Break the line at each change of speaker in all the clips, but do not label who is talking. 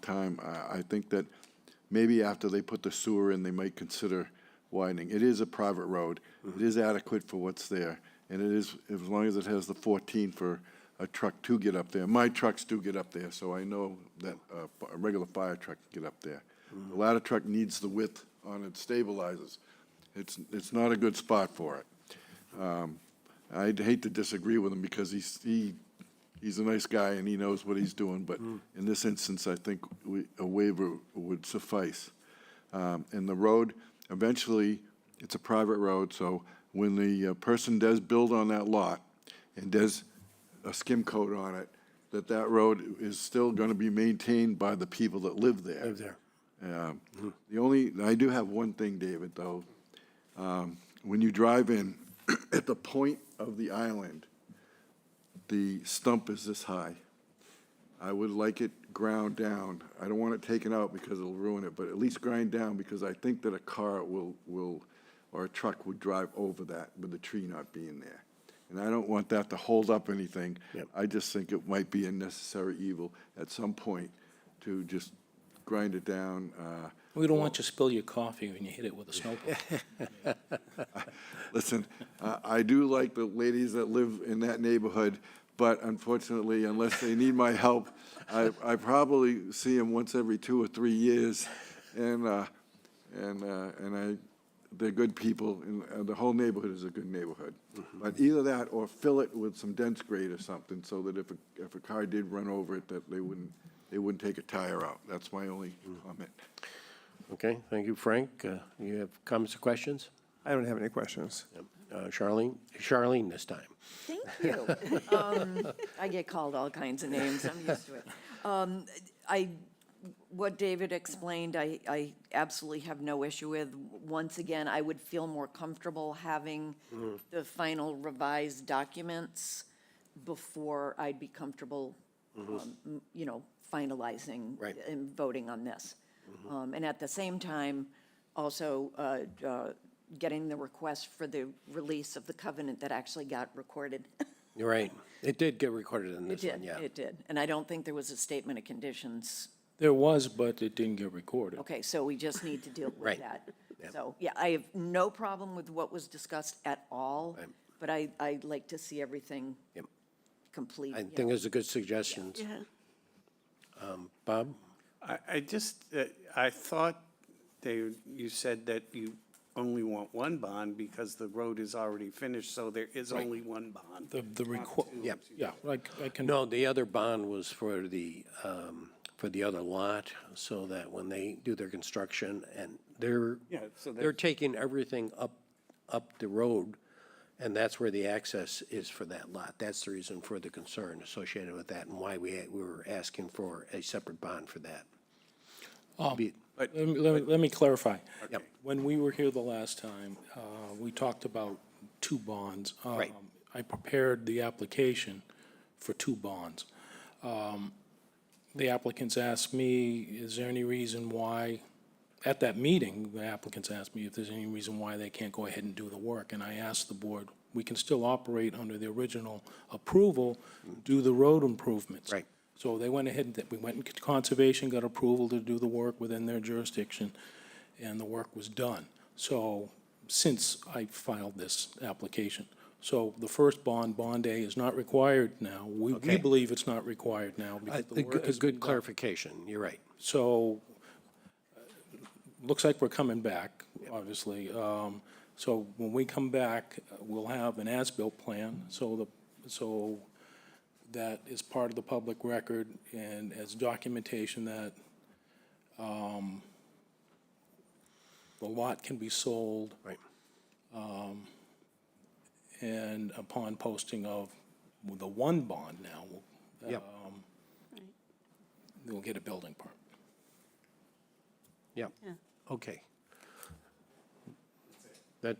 time. I, I think that maybe after they put the sewer in, they might consider widening. It is a private road. It is adequate for what's there. And it is, as long as it has the 14 for a truck to get up there. My trucks do get up there, so I know that uh, a regular fire truck can get up there. The ladder truck needs the width on its stabilizers. It's, it's not a good spot for it. I'd hate to disagree with him because he's, he, he's a nice guy and he knows what he's doing, but in this instance, I think we, a waiver would suffice. Um, and the road, eventually, it's a private road, so when the uh, person does build on that lot and does a skim coat on it, that that road is still gonna be maintained by the people that live there.
Live there.
Um, The only, I do have one thing, David, though. Um, When you drive in, at the point of the island, the stump is this high. I would like it ground down. I don't want it taken out because it'll ruin it, but at least grind down because I think that a car will, will, or a truck would drive over that with the tree not being there. And I don't want that to hold up anything.
Yep.
I just think it might be a necessary evil at some point to just grind it down. uh,
We don't want you to spill your coffee when you hit it with a snowball.
Listen, I I do like the ladies that live in that neighborhood, but unfortunately, unless they need my help, I, I probably see them once every two or three years. And, uh, and, uh, and I, they're good people, and uh, the whole neighborhood is a good neighborhood. But either that or fill it with some dense grade or something, so that if, a- if a car did run over it, that they wouldn't, they wouldn't take a tire out. That's my only comment.
Okay, thank you, Frank. Uh, You have comments or questions?
I don't have any questions.
Uh, Charlene, Charlene this time.
Thank you. Um, I get called all kinds of names, I'm used to it. Um, I, what David explained, I, I absolutely have no issue with. Once again, I would feel more comfortable having the final revised documents before I'd be comfortable, um, m- you know, finalizing
Right.
and voting on this. Um, And at the same time, also uh, uh, getting the request for the release of the covenant that actually got recorded.
You're right. It did get recorded in
It
this one,
did,
yeah.
it did. And I don't think there was a statement of conditions.
There was, but it didn't get recorded.
Okay, so we just need to deal
Right.
with that. So, yeah, I have no problem with what was discussed at all, but I, I'd like to see everything
Yep.
complete.
I
yeah.
think it's a good suggestion. Um, Bob?
I, I just, uh, I thought they, you said that you only want one bond because the road is already finished, so there is only one bond.
The, the record,
Yeah.
yeah, like, I can,
No, the other bond was for the, um, for the other lot, so that when they do their construction and they're,
Yeah, so
they're taking everything up, up the road, and that's where the access is for that lot. That's the reason for the concern associated with that and why we, had- we were asking for a separate bond for that. Be-
let me, let me- let me clarify. When we were here the last time, uh, we talked about two bonds.
Right.
Um, I prepared the application for two bonds. Um, The applicants asked me, is there any reason why, at that meeting, the applicants asked me if there's any reason why they can't go ahead and do the work. And I asked the board, we can still operate under the original approval, do the road improvements.
Right.
So they went ahead and, we went to conservation, got approval to do the work within their jurisdiction, and the work was done. So, since I filed this application. So the first bond, Bond A, is not required now. We, we
Okay.
believe it's not required now
I
because the
think
work
A
has been
good
done.
clarification, you're right.
So, uh, looks like we're coming back, obviously. Um, So when we come back, uh, we'll have an as-built plan, so the, so that is part of the public record and as documentation that um, the lot can be sold
Right.
and upon posting of the one bond now, we'll-
Yep,
we'll get a building permit.
yep. Okay. That,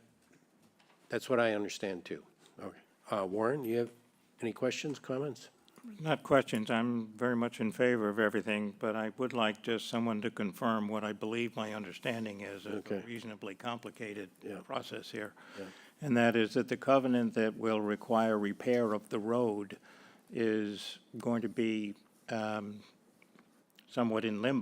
that's what I understand too. Okay. Uh, Warren, you have any questions, comments?
Not questions, I'm very much in favor of everything, but I would like just someone to confirm what I believe my understanding is of a
Okay.
reasonably complicated process here. And that is that the covenant that will require repair of the road is going to be um, somewhat in limbo